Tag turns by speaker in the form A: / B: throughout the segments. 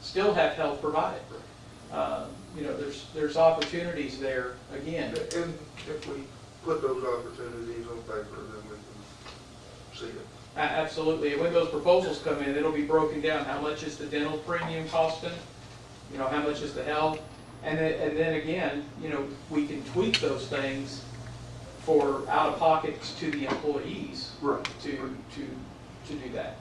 A: still have health provided. Um, You know, there's, there's opportunities there, again,
B: And if we put those opportunities on paper, then we can see it.
A: A- Absolutely, and when those proposals come in, it'll be broken down, how much is the dental premium costing? You know, how much is the health? And then, and then again, you know, we can tweak those things for out-of-pockets to the employees
B: Right.
A: to, to, to do that.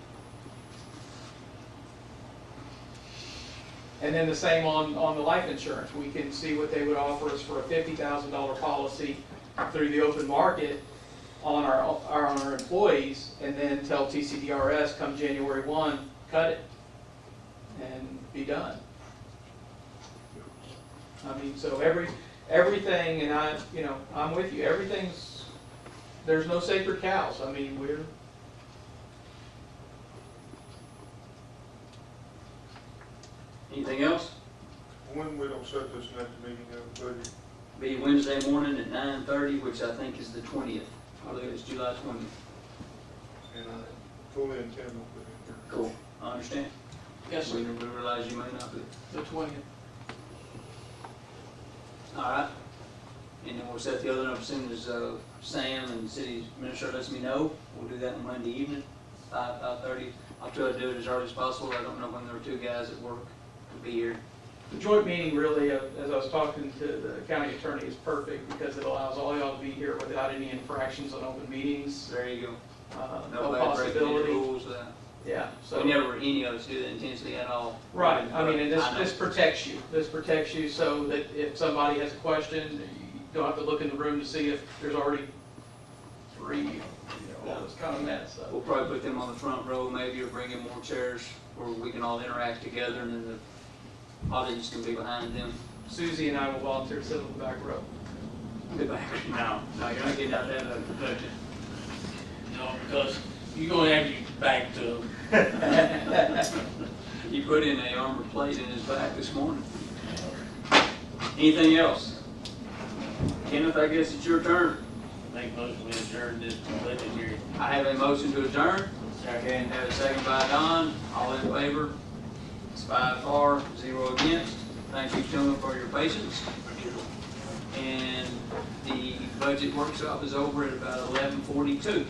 A: And then the same on, on the life insurance, we can see what they would offer us for a fifty thousand dollar policy through the open market on our, on our employees, and then tell TCDRS come January one, cut it, and be done. I mean, so every, everything, and I, you know, I'm with you, everything's, there's no sacred cows, I mean, we're,
C: Anything else?
B: When we don't set this next meeting up, budget,
C: Be Wednesday morning at nine thirty, which I think is the twentieth. I believe it's July twentieth.
B: and I fully intend on putting it here.
C: Cool. I understand.
A: Yes,
C: We we realize you may not be.
A: the twentieth.
C: All right. And then we'll set the other up as soon as, uh, Sam and the city administrator lets me know. We'll do that on Monday evening, five, five thirty. I'll try to do it as early as possible. I don't know when there are two guys at work to be here.
A: The joint meeting really, uh, as I was talking to the county attorney, is perfect because it allows all y'all to be here without any infractions on open meetings,
C: There you go.
A: uh, no
C: Nobody breaking any
A: possibility.
C: rules. uh,
A: Yeah,
C: We
A: so,
C: never, any of us do that intensely at all.
A: right, I mean, and this,
C: I know.
A: this protects you, this protects you so that if somebody has a question, you don't have to look in the room to see if there's already three, you know, all this kind of mess, so.
C: We'll probably put them on the front row maybe, or bring in more chairs where we can all interact together and then the audience can be behind them.
A: Susie and I will volunteer to sit on the back row.
C: No, no, you're not getting out of that.
D: budget. No, because you're gonna have your back to them.
C: You put in a armor plate in his back this morning. Anything else? Kenneth, I guess it's your turn.
D: Make most of it during this budget year.
C: I have a motion to adjourn. And have a second by Don. All in favor? It's five for, zero against. Thank you, gentlemen, for your patience. And the budget workshop is over at about eleven forty-two.